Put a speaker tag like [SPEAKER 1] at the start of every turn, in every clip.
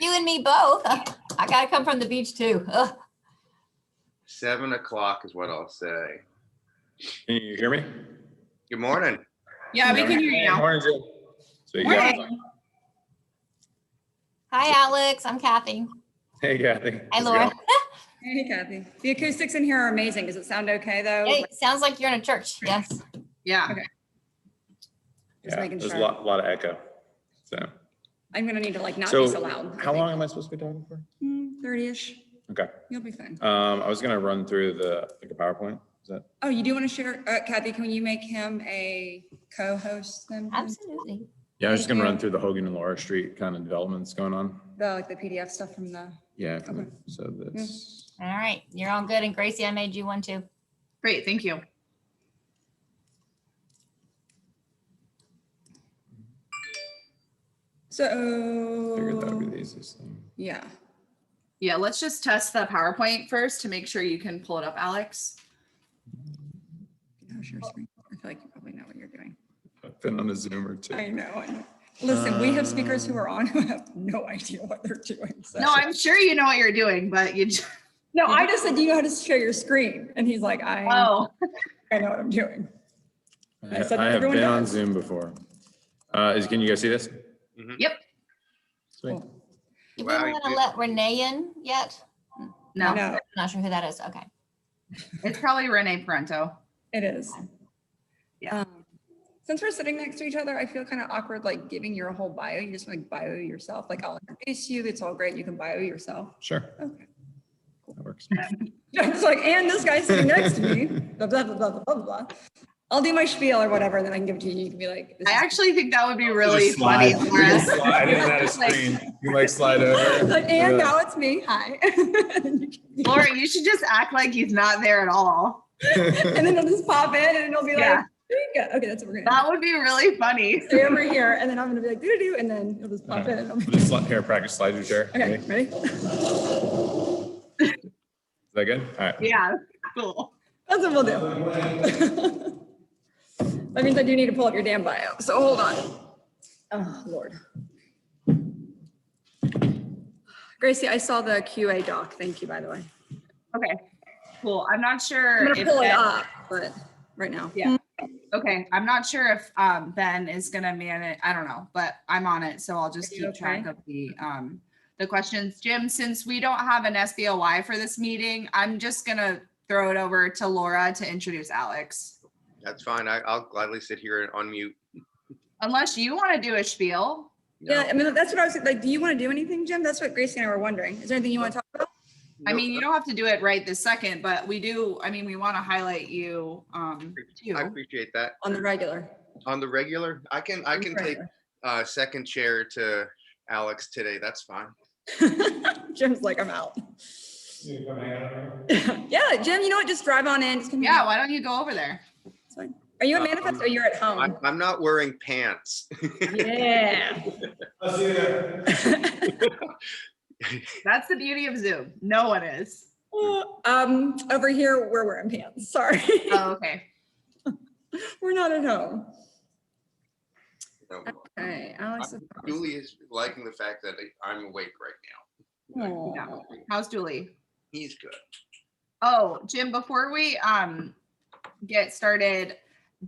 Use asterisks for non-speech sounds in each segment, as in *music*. [SPEAKER 1] You and me both. I gotta come from the beach too. Ugh.
[SPEAKER 2] Seven o'clock is what I'll say.
[SPEAKER 3] Can you hear me?
[SPEAKER 2] Good morning.
[SPEAKER 4] Yeah, we can hear you now.
[SPEAKER 3] Morning, Jill. So you got-
[SPEAKER 1] Hi, Alex. I'm Kathy.
[SPEAKER 3] Hey, Kathy.
[SPEAKER 1] Hi,
[SPEAKER 3] How's it
[SPEAKER 1] Laura.
[SPEAKER 3] going?
[SPEAKER 4] Hey Kathy, the acoustics in here are amazing. Does it sound okay though?
[SPEAKER 1] Hey, sounds like you're in a church.
[SPEAKER 4] *laughs*
[SPEAKER 1] Yes.
[SPEAKER 5] Yeah,
[SPEAKER 4] Just
[SPEAKER 3] Yeah,
[SPEAKER 4] making
[SPEAKER 3] there's a
[SPEAKER 4] sure.
[SPEAKER 3] lot, lot of echo. So,
[SPEAKER 4] I'm gonna need to like not be so
[SPEAKER 3] so
[SPEAKER 4] loud. Mm,
[SPEAKER 3] how long am I supposed to be talking for?
[SPEAKER 4] Thirty-ish,
[SPEAKER 3] Okay,
[SPEAKER 4] you'll be fine.
[SPEAKER 3] um, I was gonna run through the, like a PowerPoint. Is that,
[SPEAKER 4] Oh, you do want to share, uh, Kathy, can you make him a co-host then? please?
[SPEAKER 1] Absolutely.
[SPEAKER 3] yeah, I was just
[SPEAKER 4] Thank
[SPEAKER 3] gonna run
[SPEAKER 4] you.
[SPEAKER 3] through the Hogan and Laura Street kind of developments going on.
[SPEAKER 4] The, like the PDF stuff from the,
[SPEAKER 3] Yeah, from the-
[SPEAKER 4] Okay.
[SPEAKER 3] so that's,
[SPEAKER 1] All right. You're all good. And Gracie, I made you one too.
[SPEAKER 5] great, thank you.
[SPEAKER 3] figured that would be
[SPEAKER 4] so,
[SPEAKER 3] the easiest thing.
[SPEAKER 4] yeah.
[SPEAKER 5] Yeah, let's just test the PowerPoint first to make sure you can pull it up, Alex.
[SPEAKER 4] No, share screen. I feel like you probably know what you're doing.
[SPEAKER 3] I've been on a Zoom or
[SPEAKER 4] I
[SPEAKER 3] two.
[SPEAKER 4] know. I know. Listen, we have speakers who are on who have no idea what they're doing. so-
[SPEAKER 5] No, I'm sure you know what you're doing, but you,
[SPEAKER 4] *laughs*
[SPEAKER 5] j-
[SPEAKER 4] No, I just said, do you know how to share your screen? And he's like, I,
[SPEAKER 5] oh,
[SPEAKER 4] I know what I'm doing.
[SPEAKER 3] I
[SPEAKER 4] I said
[SPEAKER 3] I have
[SPEAKER 4] everyone
[SPEAKER 3] been on
[SPEAKER 4] does.
[SPEAKER 3] Zoom before. Uh, is, can you guys see this? Mm-hmm.
[SPEAKER 5] yep,
[SPEAKER 3] Sweet.
[SPEAKER 4] Cool.
[SPEAKER 1] You
[SPEAKER 2] Wow,
[SPEAKER 1] wouldn't
[SPEAKER 2] you
[SPEAKER 1] want to
[SPEAKER 2] did.
[SPEAKER 1] let Renee in yet?
[SPEAKER 5] no,
[SPEAKER 4] No,
[SPEAKER 1] Not sure who that is. Okay.
[SPEAKER 5] it's probably Renee Parento.
[SPEAKER 4] it is.
[SPEAKER 5] Yeah.
[SPEAKER 4] Um, Since we're sitting next to each other, I feel kind of awkward, like giving your whole bio. You just like bio yourself. Like I'll introduce you. It's all great. You can bio yourself. *laughs*
[SPEAKER 3] Sure,
[SPEAKER 4] Okay.
[SPEAKER 3] that works.
[SPEAKER 4] It's like, and this guy sitting next
[SPEAKER 5] *laughs*
[SPEAKER 4] to me, blah, blah, blah, blah, blah, blah, blah. I'll do my spiel or whatever, then I can give it to you. You can be like, this
[SPEAKER 5] I
[SPEAKER 4] is-
[SPEAKER 5] actually think that would be really funny. Laura.
[SPEAKER 3] *laughs* Slide in and
[SPEAKER 4] *laughs*
[SPEAKER 3] out of screen. You like slide over.
[SPEAKER 4] like, *laughs* and now *laughs* it's me. Hi. *laughs* and
[SPEAKER 5] Laura, you should just act like he's not there at all.
[SPEAKER 4] then it'll just pop in and it'll be like,
[SPEAKER 5] Yeah.
[SPEAKER 4] there you go. Okay, that's what we're gonna
[SPEAKER 5] That would be really funny. *laughs*
[SPEAKER 4] do. Stay over here, and then I'm gonna be like, doo doo, and then it'll just
[SPEAKER 5] Uh-huh.
[SPEAKER 4] pop in. It'll be-
[SPEAKER 3] Just let- here, practice slide your chair.
[SPEAKER 4] Okay,
[SPEAKER 3] Ready? Is
[SPEAKER 4] ready?
[SPEAKER 3] that good? All right.
[SPEAKER 5] Yeah, cool.
[SPEAKER 4] That's what we'll do. *laughs* That means I do need to pull up your damn bio, so hold on. Oh, Lord. Gracie, I saw the QA doc, thank you, by the way.
[SPEAKER 5] Okay, cool. I'm not
[SPEAKER 4] I'm
[SPEAKER 5] sure.
[SPEAKER 4] gonna
[SPEAKER 5] if
[SPEAKER 4] pull it
[SPEAKER 5] Ben-
[SPEAKER 4] up, but right now.
[SPEAKER 5] Yeah. Okay, I'm not sure if um, Ben is gonna man it. I don't know, but I'm on it, so I'll just
[SPEAKER 4] Are
[SPEAKER 5] keep
[SPEAKER 4] you
[SPEAKER 5] track
[SPEAKER 4] okay?
[SPEAKER 5] of the um, the questions. Jim, since we don't have an SBOY for this meeting, I'm just gonna throw it over to Laura to introduce Alex.
[SPEAKER 2] That's fine. I, I'll gladly sit here and unmute.
[SPEAKER 5] Unless you want to do a spiel.
[SPEAKER 2] No.
[SPEAKER 4] Yeah, I mean, that's what I was, like, do you wanna do anything, Jim? That's what Gracie and I were wondering. Is there anything you wanna talk about?
[SPEAKER 5] I
[SPEAKER 2] No,
[SPEAKER 5] mean, you don't have to do it right this second, but we do. I mean, we want to highlight you um,
[SPEAKER 2] I
[SPEAKER 5] too.
[SPEAKER 2] appreciate that.
[SPEAKER 4] On the regular.
[SPEAKER 2] On the regular, I can, I can take uh second chair to Alex today. That's fine.
[SPEAKER 4] *laughs* Jim's like, I'm out. *laughs* Yeah, Jim, you know what? Just drive on in, just come. here.
[SPEAKER 5] Yeah, why don't you go over there?
[SPEAKER 4] It's fine. Are you a
[SPEAKER 2] Um,
[SPEAKER 4] manifest or you're at
[SPEAKER 5] Oh.
[SPEAKER 2] I'm,
[SPEAKER 4] home?
[SPEAKER 2] I'm not wearing pants. *laughs*
[SPEAKER 4] Yeah.
[SPEAKER 5] That's the beauty of Zoom. No one is.
[SPEAKER 4] *laughs* Um, over here, we're wearing pants. Sorry, *laughs*
[SPEAKER 5] Oh, okay.
[SPEAKER 4] we're not at home.
[SPEAKER 2] No.
[SPEAKER 4] Okay, Alex. is-
[SPEAKER 2] Julie is liking the fact that I'm awake right now.
[SPEAKER 4] Aw.
[SPEAKER 5] How's Julie?
[SPEAKER 2] He's good.
[SPEAKER 5] Oh, Jim, before we um get started,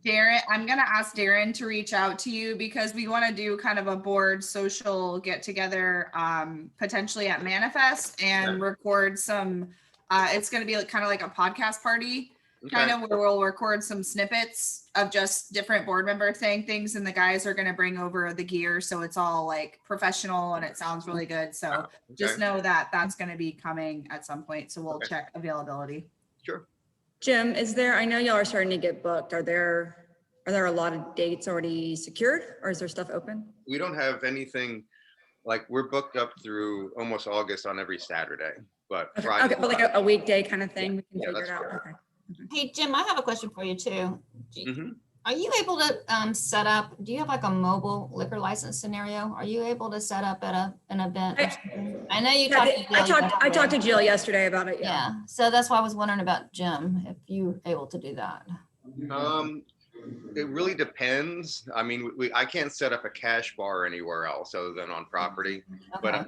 [SPEAKER 5] Darren, I'm gonna ask Darren to reach out to you because we want to do kind of a board social get together um potentially at Manifest and record some uh it's gonna be like kind of like a podcast party kind
[SPEAKER 2] Okay.
[SPEAKER 5] of where we'll record some snippets of just different board members saying things and the guys are gonna bring over the gear so it's all like professional and it sounds really good. So just
[SPEAKER 2] Ah, Okay.
[SPEAKER 5] know that that's gonna be coming at some point, so we'll
[SPEAKER 2] Okay.
[SPEAKER 5] check availability.
[SPEAKER 2] Sure.
[SPEAKER 4] Jim, is there, I know y'all are starting to get booked. Are there, are there a lot of dates already secured or is there stuff open?
[SPEAKER 2] We don't have anything, like, we're booked up through almost August on every Saturday, but
[SPEAKER 4] Okay,
[SPEAKER 2] Friday.
[SPEAKER 4] okay, but like a, a weekday kind of thing, we can
[SPEAKER 2] Yeah,
[SPEAKER 4] figure
[SPEAKER 2] that's
[SPEAKER 4] it out.
[SPEAKER 2] fair.
[SPEAKER 4] Okay.
[SPEAKER 1] Hey, Jim, I have a question for you too. Do you-
[SPEAKER 2] Mhm.
[SPEAKER 1] Are you able to um, set up, do you have like a mobile liquor license scenario? Are you able to set up at a, an event? or
[SPEAKER 4] I-
[SPEAKER 1] something? I know you
[SPEAKER 4] Yeah,
[SPEAKER 1] talked.
[SPEAKER 4] they-
[SPEAKER 1] to
[SPEAKER 4] I
[SPEAKER 1] Jill
[SPEAKER 4] talked, I
[SPEAKER 1] yesterday.
[SPEAKER 4] talked to Jill yesterday about it. Yeah.
[SPEAKER 1] Yeah, so that's why I was wondering about Jim, if you able to do that.
[SPEAKER 2] Um, it really depends. I mean, we, I can't set up a cash bar anywhere else other than on property, but
[SPEAKER 1] Okay.